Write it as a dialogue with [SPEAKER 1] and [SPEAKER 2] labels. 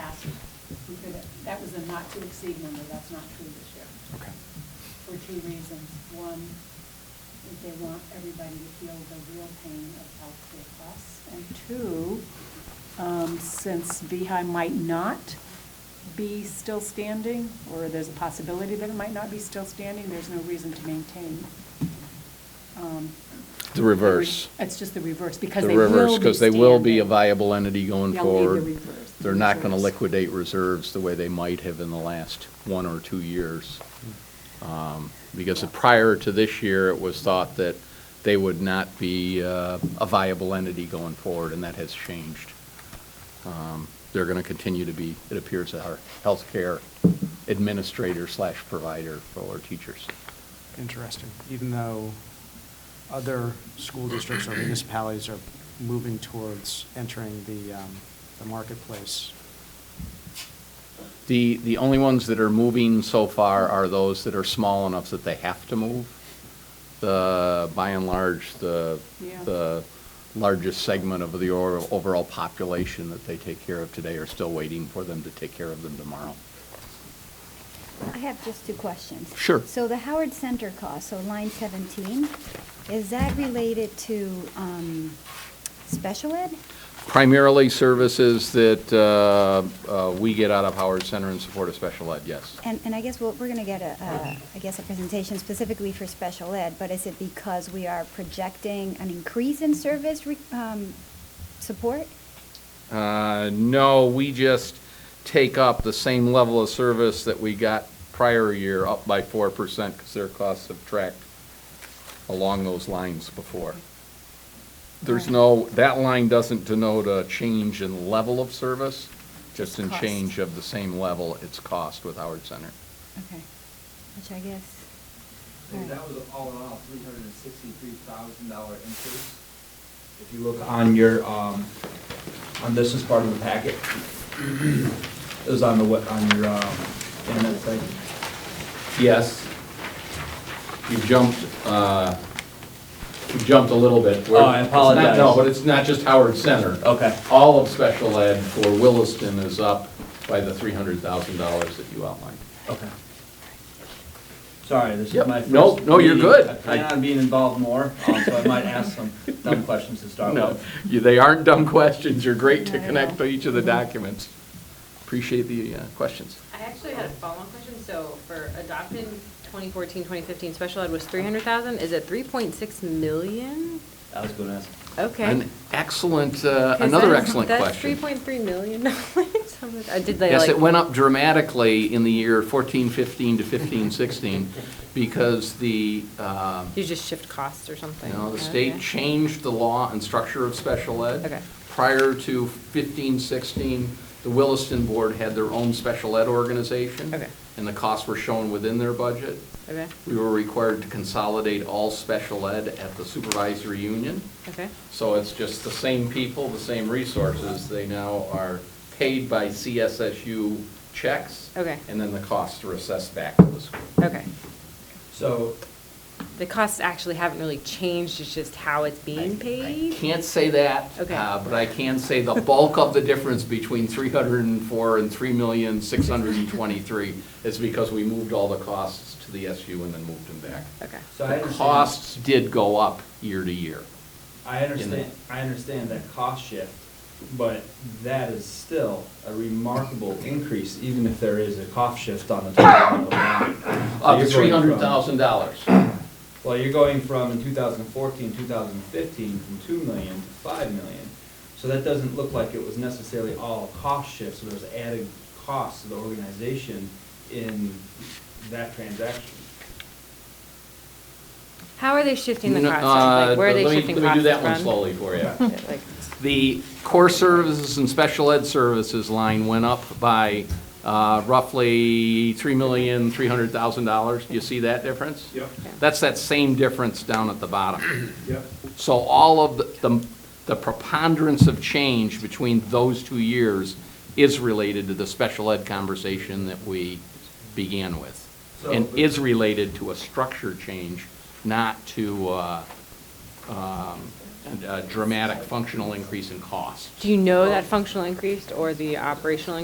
[SPEAKER 1] through that. That was a not to exceed number, that's not true this year,
[SPEAKER 2] Okay.
[SPEAKER 1] for two reasons. One, is they want everybody to feel the real pain of healthcare costs. And two, um, since VHI might not be still standing, or there's a possibility that it might not be still standing, there's no reason to maintain. um,
[SPEAKER 2] The reverse.
[SPEAKER 1] It's just the reverse, because
[SPEAKER 2] The
[SPEAKER 1] they will be
[SPEAKER 2] reverse, because they will be a
[SPEAKER 1] standing.
[SPEAKER 2] viable entity
[SPEAKER 1] They'll
[SPEAKER 2] going
[SPEAKER 1] need the
[SPEAKER 2] forward.
[SPEAKER 1] reverse-
[SPEAKER 2] They're not going to
[SPEAKER 1] reserves.
[SPEAKER 2] liquidate reserves the way they might have in the last one or two years. Um, Because prior to this year, it was thought that they would not be uh, a viable entity going forward, and that has changed. Um, They're going to continue to be, it appears, our healthcare administrator slash provider for our teachers.
[SPEAKER 3] Interesting, even though other school districts or municipalities are moving towards entering the, um, the marketplace.
[SPEAKER 2] The, the only ones that are moving so far are those that are small enough that they have to move. The, by and large, the,
[SPEAKER 1] Yeah.
[SPEAKER 2] the largest segment of the or- overall population that they take care of today are still waiting for them to take care of them tomorrow.
[SPEAKER 4] I have just two questions.
[SPEAKER 2] Sure.
[SPEAKER 4] So the Howard Center cost, so line 17, is that related to um, special ed?
[SPEAKER 2] Primarily services that uh, uh, we get out of Howard Center in support of special ed, yes.
[SPEAKER 4] And, and I guess we'll- we're going to get a, a- I guess, a presentation specifically for special ed, but is it because we are projecting an increase in service re- um, support?
[SPEAKER 2] Uh, No, we just take up the same level of service that we got prior year, up by 4%, because their costs have tracked along those lines before. There's no, that line doesn't denote a change in level of service, just in
[SPEAKER 4] Cost.
[SPEAKER 2] change of the same level, it's cost with Howard Center.
[SPEAKER 4] Okay, which I guess.
[SPEAKER 5] And
[SPEAKER 4] all
[SPEAKER 5] that
[SPEAKER 4] right.
[SPEAKER 5] was all in all, three hundred and sixty-three thousand dollar increase. If you look on your, um, on this is part of the packet. It was on the, what, on your, um, internet site.
[SPEAKER 2] Yes. You jumped, uh, you jumped a little bit.
[SPEAKER 5] Oh, I
[SPEAKER 2] It's not- No,
[SPEAKER 5] apologize.
[SPEAKER 2] but it's not just Howard Center.
[SPEAKER 5] Okay.
[SPEAKER 2] All of special ed for Williston is up by the $300,000 that you outlined.
[SPEAKER 5] Okay. Sorry, this is
[SPEAKER 2] Yep.
[SPEAKER 5] my first.
[SPEAKER 2] No, no, you're
[SPEAKER 5] meeting.
[SPEAKER 2] good.
[SPEAKER 5] I plan on being involved more, um, so I might ask some dumb questions to start
[SPEAKER 2] Oh, No,
[SPEAKER 5] with.
[SPEAKER 2] you- they aren't dumb questions. You're great to
[SPEAKER 4] Not at
[SPEAKER 2] connect
[SPEAKER 4] all.
[SPEAKER 2] each of
[SPEAKER 6] Mm-hmm.
[SPEAKER 2] the documents. Appreciate the uh, questions.
[SPEAKER 6] I actually had a follow-on question, so for adopted 2014, 2015, special ed was 300,000, is it 3.6 million?
[SPEAKER 5] I was gonna ask.
[SPEAKER 6] Okay.
[SPEAKER 2] An excellent, uh,
[SPEAKER 6] 'Cause
[SPEAKER 2] another
[SPEAKER 6] that's-
[SPEAKER 2] excellent
[SPEAKER 6] That's
[SPEAKER 2] question.
[SPEAKER 6] 3.3 million dollars, I'm like, uh, did they
[SPEAKER 2] Yes,
[SPEAKER 6] like?
[SPEAKER 2] it went up dramatically in the year 14, 15 to 15, 16, because the, um,
[SPEAKER 6] You just shift costs or something?
[SPEAKER 2] you know, the
[SPEAKER 6] Okay.
[SPEAKER 2] state changed the law and structure of special ed.
[SPEAKER 6] Okay.
[SPEAKER 2] Prior to 15, 16, the Williston Board had their own special ed organization.
[SPEAKER 6] Okay.
[SPEAKER 2] And the costs were shown within their budget.
[SPEAKER 6] Okay,
[SPEAKER 2] We were required to consolidate all special ed at the supervisory union.
[SPEAKER 6] okay,
[SPEAKER 2] So it's just the same people, the same resources, they now are paid by CSSU checks.
[SPEAKER 6] Okay.
[SPEAKER 2] And then the costs are assessed back to the school.
[SPEAKER 6] okay.
[SPEAKER 5] So,
[SPEAKER 6] The costs actually haven't really changed, it's just how it's being
[SPEAKER 2] I
[SPEAKER 6] paid?
[SPEAKER 2] Can't say that.
[SPEAKER 6] Okay.
[SPEAKER 2] uh, But I can say the bulk of the difference between 304 and 3,623 is because we moved all the costs to the SU and then moved them back.
[SPEAKER 6] Okay,
[SPEAKER 5] so I
[SPEAKER 2] The
[SPEAKER 5] understand.
[SPEAKER 2] costs did go up year to year.
[SPEAKER 5] I
[SPEAKER 2] the-
[SPEAKER 5] understand, I understand that cost shift, but that is still a remarkable increase, even if there is a cost shift on the top of the line. So
[SPEAKER 2] Up to
[SPEAKER 5] you're going from-
[SPEAKER 2] $300,000.
[SPEAKER 5] Well, you're going from in 2014, 2015, from 2 million to 5 million. So that doesn't look like it was necessarily all cost shift, so there's added costs to the organization in that transaction.
[SPEAKER 6] how are they shifting the
[SPEAKER 2] No,
[SPEAKER 6] costs?
[SPEAKER 2] uh,
[SPEAKER 6] Like, where are they
[SPEAKER 2] let me-
[SPEAKER 6] shifting costs
[SPEAKER 2] Let me
[SPEAKER 6] from?
[SPEAKER 2] do that one slowly for you.
[SPEAKER 6] Like,
[SPEAKER 2] The core services and special ed services line went up by uh, roughly $3,300,000. Do you see that difference?
[SPEAKER 5] Yep,
[SPEAKER 2] That's that same difference down at the bottom.
[SPEAKER 5] yep.
[SPEAKER 2] So all of the- the, the preponderance of change between those two years is related to the special ed conversation that we began with. And
[SPEAKER 5] So-
[SPEAKER 2] is related to a structure change, not to uh, um, a dramatic functional increase in cost.
[SPEAKER 6] Do you know that functional increased or the operational